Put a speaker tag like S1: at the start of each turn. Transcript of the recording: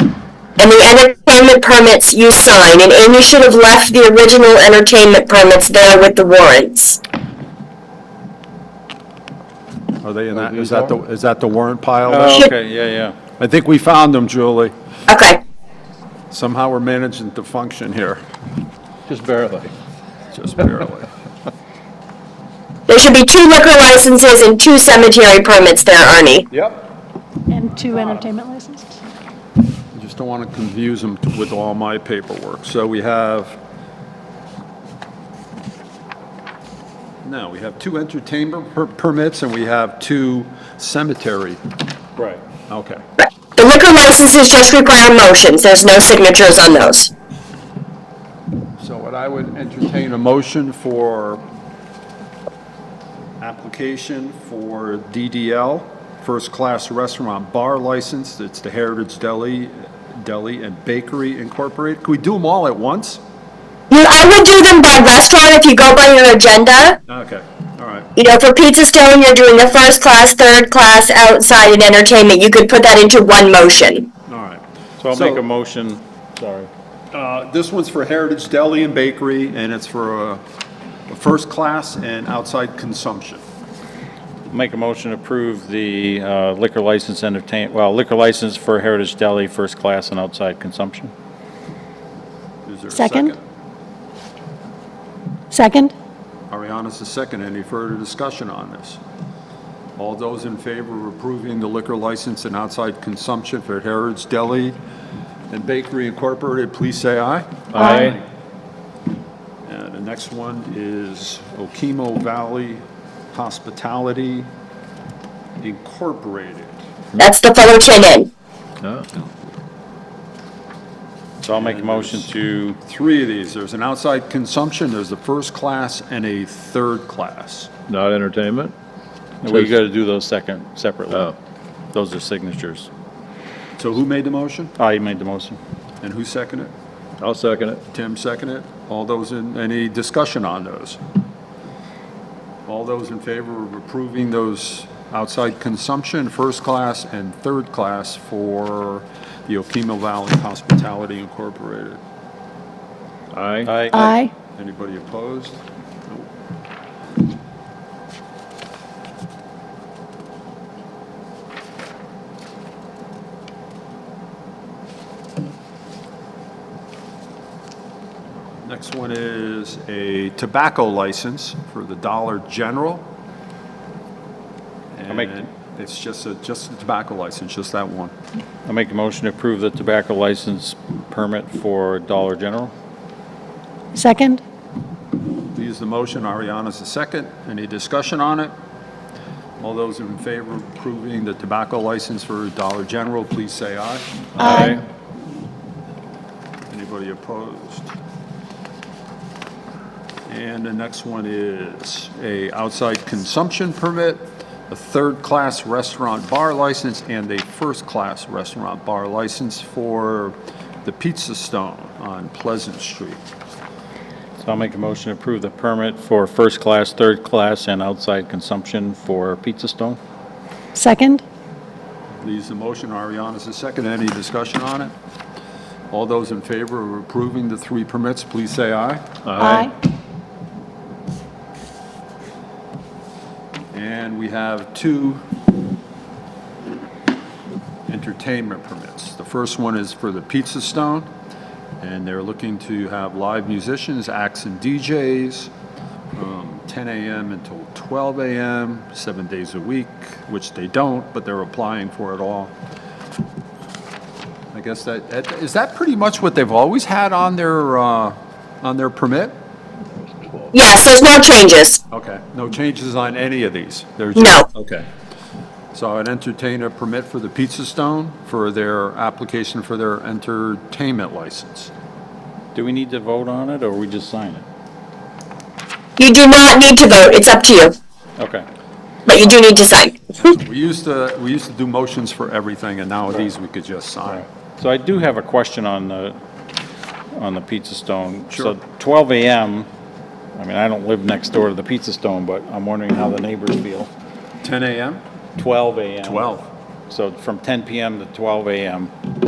S1: and the entertainment permits you sign, and Amy should have left the original entertainment permits there with the warrants.
S2: Are they in that,
S3: these
S2: is that the,
S3: are?
S2: is that the warrant pile?
S3: Oh, okay, yeah, yeah.
S2: I think we found them, Julie.
S1: Okay.
S2: Somehow we're managing to function here,
S3: Just barely.
S2: just barely.
S1: There should be two liquor licenses and two cemetery permits there, Arnie.
S3: Yep.
S4: And two entertainment licenses?
S2: I Just don't want to confuse them with all my paperwork. So we have, no, we have two entertainment per- permits and we have two cemetery.
S3: Right.
S2: Okay.
S1: The liquor licenses just require motions, there's no signatures on those.
S2: So what I would entertain a motion for application for DDL, first-class restaurant bar license, it's the Heritage Deli, Deli and Bakery Incorporated. Can we do them all at once?
S1: You, I would do them by restaurant if you go by your agenda.
S2: Okay, all right.
S1: You know, for Pizza Stone, you're doing the first class, third class, outside, and entertainment. You could put that into one motion.
S2: All right.
S3: So I'll make a motion, sorry.
S2: Uh, This one's for Heritage Deli and Bakery, and it's for uh, first class and outside consumption.
S3: Make a motion to approve the uh, liquor license entertain, well, liquor license for Heritage Deli, first class and outside consumption.
S2: Is there a
S4: Second. Second?
S2: Ariana's the second. Any further discussion on this? All those in favor of approving the liquor license and outside consumption for Heritage Deli and Bakery Incorporated, please say aye.
S3: Aye.
S2: And the next one is Okemo Valley Hospitality Incorporated.
S1: That's the Fullerton Inn.
S3: So I'll make a motion to,
S2: Three of these. There's an outside consumption, there's a first class, and a third class.
S5: Not entertainment?
S3: we got to do those second, separately.
S5: Oh.
S3: Those are signatures.
S2: So who made the motion
S3: I made the motion.
S2: and who seconded it?
S5: I'll second it.
S2: Tim seconded. All those in, any discussion on those? All those in favor of approving those outside consumption, first class and third class for the Okemo Valley Hospitality Incorporated?
S5: Aye.
S3: Aye.
S4: Aye.
S2: Anybody opposed? Nope. Next one is a tobacco license for the Dollar General.
S3: make-
S2: And it's just a, just a tobacco license, just that one.
S3: I'll make a motion to approve the tobacco license permit for Dollar General.
S4: Second?
S2: Leaves the motion, Ariana's the second. Any discussion on it? All those in favor of approving the tobacco license for Dollar General, please say aye.
S4: Aye.
S2: Anybody opposed? And the next one is a outside consumption permit, a third-class restaurant bar license, and a first-class restaurant bar license for the Pizza Stone on Pleasant Street.
S3: So I'll make a motion to approve the permit for first class, third class, and outside consumption for Pizza Stone.
S4: Second?
S2: Leaves the motion, Ariana's the second. Any discussion on it? All those in favor of approving the three permits, please say aye. And we have two entertainment permits. The first one is for the Pizza Stone, and they're looking to have live musicians, acts and um, DJs, from 10 a.m. until 12 a.m., seven days a week, which they don't, but they're applying for it all. I guess that, that- is that pretty much what they've always had on their, uh, on their permit?
S1: Yes, there's no changes.
S2: Okay, no changes on any of these? There's
S1: No.
S2: just- Okay. So I'd entertain a permit for the Pizza Stone for their application for their entertainment license.
S3: Do we need to vote on it, or we just sign it?
S1: You do not need to vote, it's up to you,
S3: Okay.
S1: but you do need to sign.
S2: We used to, we used to do motions for everything, and now these we could just sign.
S3: So I do have a question on the, on the Pizza Stone.
S2: Sure.
S3: So 12 AM, I mean, I don't live next door to the Pizza Stone, but I'm wondering how the neighbors feel.
S2: 10 a.m.?
S3: 12 AM.
S2: 12.
S3: So from 10 PM to 12 AM,